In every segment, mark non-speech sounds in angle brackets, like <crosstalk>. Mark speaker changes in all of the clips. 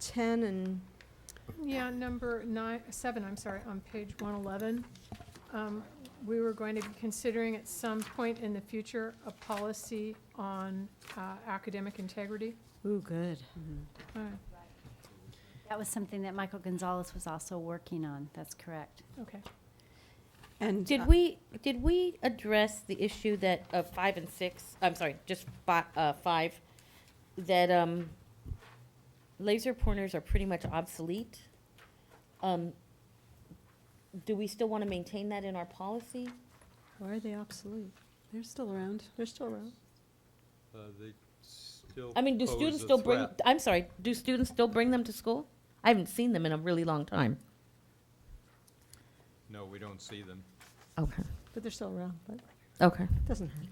Speaker 1: ten and,
Speaker 2: Yeah, number nine, seven, I'm sorry, on page one eleven. Um, We were going to be considering at some point in the future a policy on uh, academic integrity.
Speaker 1: ooh, good.
Speaker 2: Uh,
Speaker 3: That was something that Michael Gonzalez was also working on, that's correct.
Speaker 2: Okay.
Speaker 4: And
Speaker 3: uh,
Speaker 5: Did we, did we address the issue that, of five and six, I'm sorry, just fi- uh, five, that, um, laser pointers are pretty much obsolete? Um, do we still wanna maintain that in our policy?
Speaker 1: Why are they obsolete?
Speaker 4: They're still around.
Speaker 1: They're still around.
Speaker 6: Uh, They still.
Speaker 5: I mean, do
Speaker 6: pose
Speaker 5: students
Speaker 6: a
Speaker 5: still bring,
Speaker 6: threat.
Speaker 5: I'm sorry, do students still bring them to school? I haven't seen them in a really long time.
Speaker 6: No, we don't see them.
Speaker 5: Okay,
Speaker 1: But they're still around, but
Speaker 5: okay.
Speaker 1: it doesn't hurt.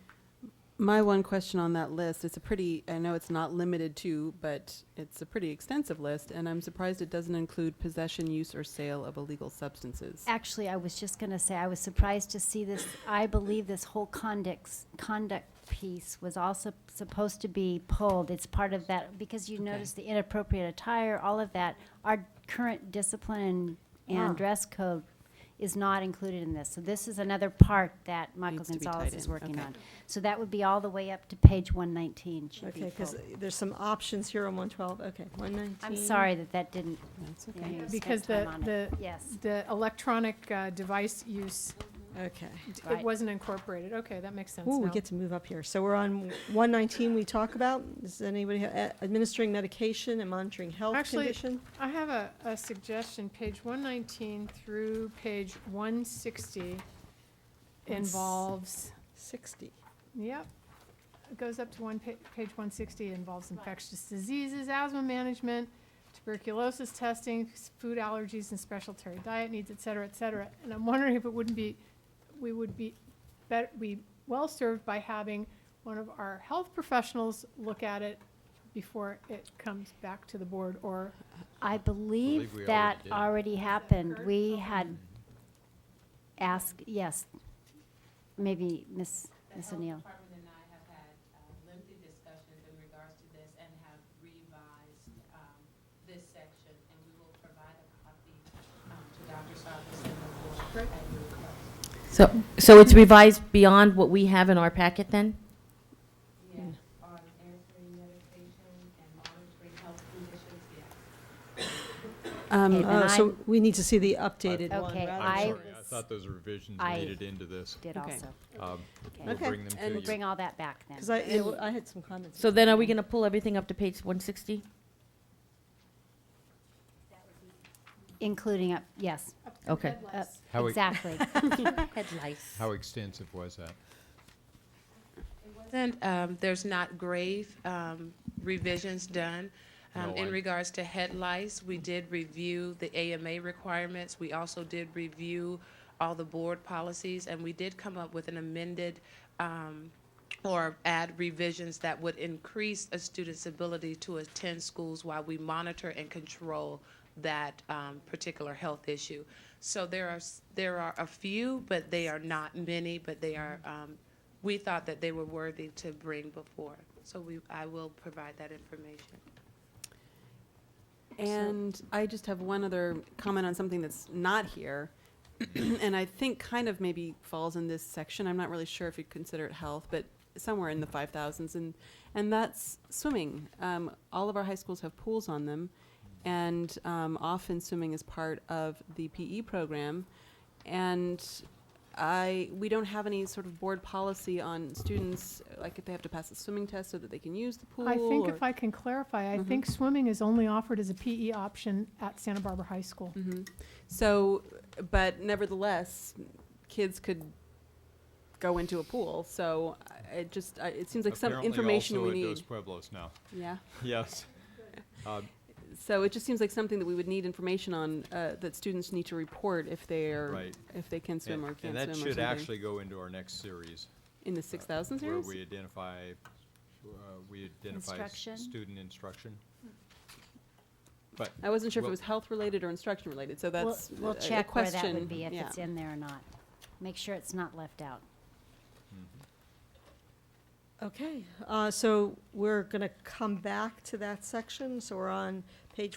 Speaker 4: My one question on that list, it's a pretty, I know it's not limited to, but it's a pretty extensive list, and I'm surprised it doesn't include possession, use, or sale of illegal substances.
Speaker 3: Actually, I was just gonna say, I was surprised to see this, I believe this whole conduct, conduct piece was also supposed to be pulled. It's part of that, because you notice the inappropriate attire, all of that. Our current discipline and-
Speaker 4: Ah.
Speaker 3: and dress code is not included in this. So this is another part that Michael
Speaker 4: Needs to be
Speaker 3: Gonzalez
Speaker 4: tied
Speaker 3: is
Speaker 4: in,
Speaker 3: working
Speaker 4: okay.
Speaker 3: on. So that would be all the way up to page one nineteen should be
Speaker 1: Okay, because
Speaker 3: pulled.
Speaker 1: there's some options here on one twelve, okay, one nineteen.
Speaker 3: I'm sorry that that didn't,
Speaker 4: That's
Speaker 3: you know,
Speaker 4: okay.
Speaker 3: you spent
Speaker 2: Because the,
Speaker 3: time on it.
Speaker 2: the,
Speaker 3: Yes,
Speaker 2: the electronic uh, device use,
Speaker 1: Okay.
Speaker 2: d- it
Speaker 3: Right.
Speaker 2: wasn't incorporated. Okay, that makes sense
Speaker 1: Ooh, we
Speaker 2: now.
Speaker 1: get to move up here. So we're on one nineteen we talk about. Does anybody, ha- eh, administering medication and monitoring health
Speaker 2: Actually,
Speaker 1: condition?
Speaker 2: I have a, a suggestion, page one nineteen through page one sixty involves
Speaker 1: Sixty.
Speaker 2: Yep. It goes up to one, pa- page 160, involves infectious diseases, asthma management, tuberculosis testing, s- food allergies and special dietary diet needs, et cetera, et cetera. And I'm wondering if it wouldn't be, we would be, bet- be well-served by having one of our health professionals look at it before it comes back to the board, or
Speaker 3: I
Speaker 6: believe we
Speaker 3: believe that
Speaker 6: already did.
Speaker 3: already happened.
Speaker 2: correct?
Speaker 3: We had asked, yes, maybe Miss Ms.
Speaker 4: Um,
Speaker 3: O'Neill.
Speaker 7: The health department and I have had uh, lengthy discussions in regards to this and have revised um, this section, and we will provide a copy um, to Dr. Sarvis and the board at your request.
Speaker 5: So, so it's revised beyond what we have in our packet then?
Speaker 7: Yes, on answering medication and monitoring health conditions, yes.
Speaker 4: Um, uh,
Speaker 3: Okay.
Speaker 1: Oh,
Speaker 3: And
Speaker 1: so
Speaker 3: I'm-
Speaker 1: we need to see the updated one.
Speaker 3: Okay,
Speaker 1: rather
Speaker 3: I
Speaker 1: than-
Speaker 6: I'm sorry, I
Speaker 3: was-
Speaker 6: thought those revisions
Speaker 3: I-
Speaker 6: made it into this.
Speaker 3: Did
Speaker 4: Okay.
Speaker 3: also.
Speaker 6: Um,
Speaker 3: Okay.
Speaker 6: We'll
Speaker 1: Okay.
Speaker 6: bring them
Speaker 4: And
Speaker 6: to
Speaker 3: We'll
Speaker 6: you.
Speaker 3: bring all that back then.
Speaker 1: Because I, yeah, well, I had some comments.
Speaker 5: So then are we gonna pull everything up to page one sixty?
Speaker 3: Including up, yes,
Speaker 5: Okay.
Speaker 3: up-
Speaker 6: How we- <laughs>
Speaker 3: exactly.
Speaker 5: Head lice.
Speaker 6: How extensive was that?
Speaker 7: wasn't, um, there's not grave, um, revisions done. Um,
Speaker 6: No, I-
Speaker 7: in regards to head lice, we did review the AMA requirements. We also did review all the board policies, and we did come up with an amended, um, or add revisions that would increase a student's ability to attend schools while we monitor and control that, um, particular health issue. So there are, s- there are a few, but they are not many, but they are, um, we thought that they were worthy to bring before. So we, I will provide that information.
Speaker 4: And I just have one other comment on something that's not here, <clears throat> and I think kind of maybe falls in this section. I'm not really sure if you'd consider it health, but somewhere in the five thousands, and and that's swimming. Um, all of our high schools have pools on them, and um, often swimming is part of the PE program, and. I we don't have any sort of board policy on students like if they have to pass a swimming test so that they can use the pool.
Speaker 2: I think
Speaker 4: or-
Speaker 2: if I can clarify, I think swimming is only offered as a PE option at Santa Barbara High School.
Speaker 4: Mhm. So, but nevertheless, kids could go into a pool. So I- it just I, it seems like some
Speaker 6: Apparently
Speaker 4: information
Speaker 6: also
Speaker 4: we
Speaker 6: at
Speaker 4: need.
Speaker 6: Dos Pueblos now. <laughs>
Speaker 4: Yeah.
Speaker 6: Yes. Um,
Speaker 4: So it just seems like something that we would need information on uh, that students need to report if they are
Speaker 6: Right.
Speaker 4: if they can swim
Speaker 6: and-
Speaker 4: or can't
Speaker 6: And that
Speaker 4: swim or
Speaker 6: should
Speaker 4: something.
Speaker 6: actually go into our next series. uh,
Speaker 4: in the six thousand
Speaker 6: Where
Speaker 4: series.
Speaker 6: we identify, uh, we identify s-
Speaker 3: Instruction.
Speaker 6: student instruction. But
Speaker 4: I wasn't sure if
Speaker 6: Well-
Speaker 4: it was health related or instruction related. So
Speaker 3: We'll,
Speaker 4: that's
Speaker 3: we'll
Speaker 4: a- a
Speaker 3: check where
Speaker 4: question.
Speaker 3: that would be, if
Speaker 4: yeah.
Speaker 3: it's in there or not. Make sure it's not left out.
Speaker 1: Okay, uh, so we're gonna come back to that section, so we're on page